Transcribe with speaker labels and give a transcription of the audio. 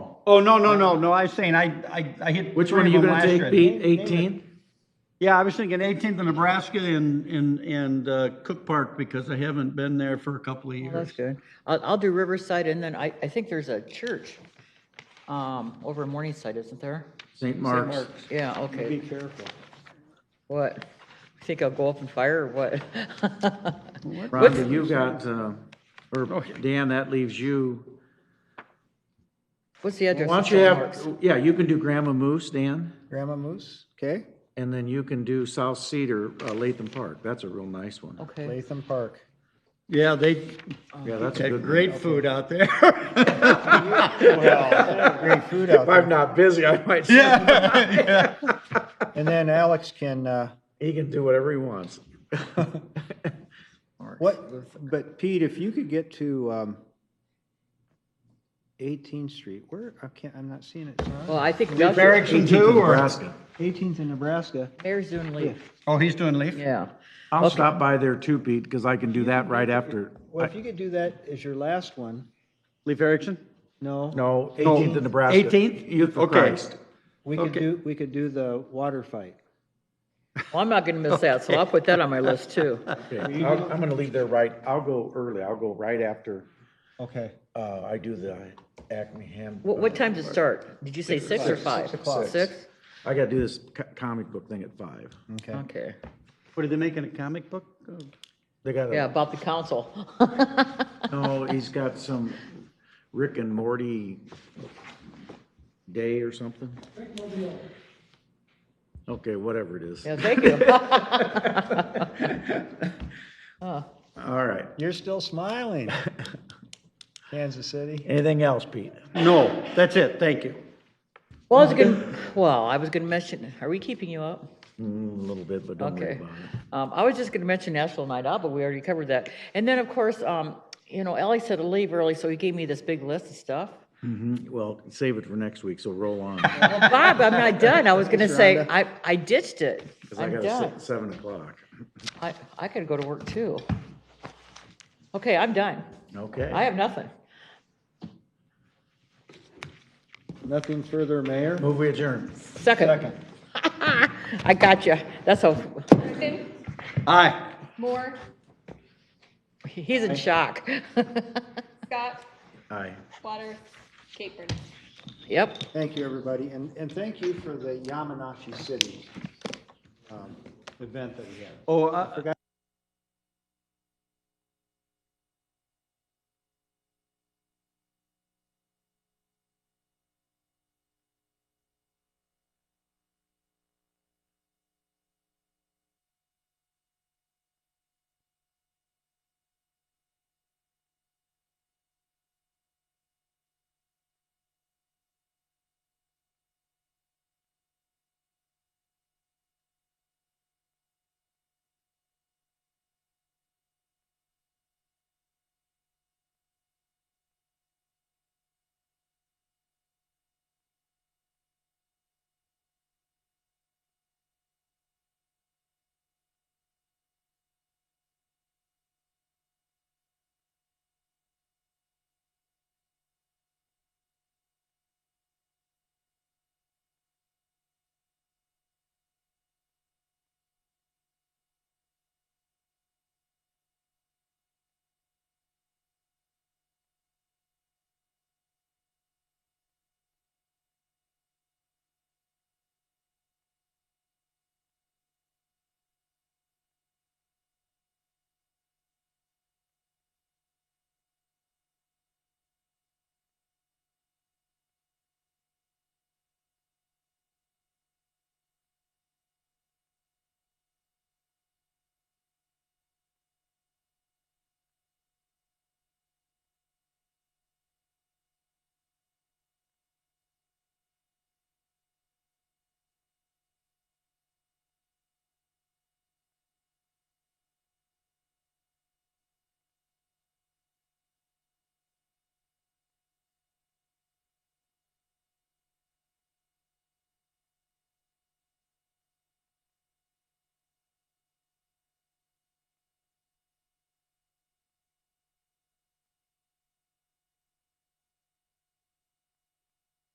Speaker 1: Oh, no, no, no, no, I was saying, I, I, I hit.
Speaker 2: Which
Speaker 1: three
Speaker 2: one are
Speaker 1: of
Speaker 2: you
Speaker 1: them
Speaker 2: gonna
Speaker 1: last
Speaker 2: take,
Speaker 1: year.
Speaker 2: Pete, eighteen?
Speaker 1: Yeah, I was thinking eighteenth of Nebraska and, and, and uh, Cook Park because I haven't been there for a couple of
Speaker 3: That's
Speaker 1: years.
Speaker 3: good. I'll, I'll do Riverside and then I, I think there's a church um, over in Morningside, isn't there?
Speaker 2: St. Mark's.
Speaker 3: Yeah,
Speaker 1: Be
Speaker 3: okay.
Speaker 1: careful.
Speaker 3: What? Think I'll go up and fire or what?
Speaker 2: Rhonda, you got, uh, or Dan, that leaves you.
Speaker 3: What's the address?
Speaker 2: Why
Speaker 3: of
Speaker 2: don't you
Speaker 3: St.
Speaker 2: have,
Speaker 3: Mark's?
Speaker 2: yeah, you can do Grandma Moose, Dan,
Speaker 4: Grandma Moose, okay,
Speaker 2: and then you can do South Cedar, uh, Latham Park. That's a real nice one.
Speaker 3: Okay.
Speaker 4: Latham Park.
Speaker 1: Yeah, they
Speaker 2: Yeah, that's a
Speaker 1: had
Speaker 2: good one.
Speaker 1: great food out there.
Speaker 4: Great food out there.
Speaker 2: not busy, I might.
Speaker 1: Yeah.
Speaker 4: And then Alex can, uh,
Speaker 2: He can do whatever he wants.
Speaker 4: what, but Pete, if you could get to, um, 18th Street, where, I can't, I'm not seeing it,
Speaker 3: Well,
Speaker 4: sorry.
Speaker 3: I think
Speaker 1: Did Barrick
Speaker 3: Doug-
Speaker 1: and two or?
Speaker 4: 18th in Nebraska.
Speaker 3: Mayor's doing leave.
Speaker 1: Oh, he's doing leaf?
Speaker 3: Yeah.
Speaker 2: I'll stop by there too, Pete, because I can do that right after.
Speaker 4: Well, if you could do that as your last one,
Speaker 1: Leif Erickson?
Speaker 4: no?
Speaker 2: No, 18th in Nebraska.
Speaker 1: 18th?
Speaker 2: Youth for
Speaker 1: Okay.
Speaker 2: Christ.
Speaker 4: We could
Speaker 1: Okay.
Speaker 4: do, we could do the water fight.
Speaker 3: Well, I'm not going to miss that, so I'll put that on my list too.
Speaker 2: Okay, I'll- I'm gonna leave there right, I'll go early, I'll go right after,
Speaker 4: Okay.
Speaker 2: uh, I do the Acme Ham.
Speaker 3: What, what time does it start? Did you say six or five?
Speaker 4: o'clock.
Speaker 3: Six?
Speaker 2: I gotta do this co- comic book thing at five.
Speaker 4: Okay.
Speaker 3: Okay.
Speaker 1: What, are they making a comic book?
Speaker 2: They got
Speaker 3: Yeah,
Speaker 2: a,
Speaker 3: about the council.
Speaker 2: no, he's got some Rick and Morty day or something. Okay, whatever it is.
Speaker 3: Yeah, thank you.
Speaker 2: All right.
Speaker 4: You're still smiling. Kansas City.
Speaker 2: Anything else, Pete?
Speaker 1: No, that's it, thank you.
Speaker 3: Well, I was gonna, well, I was gonna mention, are we keeping you up?
Speaker 2: Mm, A little bit, but don't worry
Speaker 3: Okay.
Speaker 2: about it.
Speaker 3: Um, I was just gonna mention National Night Out, but we already covered that. And then, of course, um, you know, Ally said to leave early, so he gave me this big list of stuff.
Speaker 2: Mm-hmm. Well, save it for next week, so roll on.
Speaker 3: Well, Bob, I'm not done. I was gonna say, I, I ditched it.
Speaker 2: Because I
Speaker 3: I'm
Speaker 2: got to
Speaker 3: done.
Speaker 2: sit seven o'clock.
Speaker 3: I, I gotta go to work too. Okay, I'm done. I
Speaker 2: Okay.
Speaker 3: have nothing.
Speaker 4: Nothing further, Mayor?
Speaker 2: Move we adjourn.
Speaker 3: Second. I got you. That's how,
Speaker 5: Griffin,
Speaker 1: Aye.
Speaker 5: Moore,
Speaker 3: he's in shock.
Speaker 5: Scott,
Speaker 2: Aye.
Speaker 5: Water, Capron.
Speaker 3: Yep.
Speaker 4: Thank you, everybody, and, and thank you for the Yamanashi City um, event that we had.
Speaker 1: Oh, I,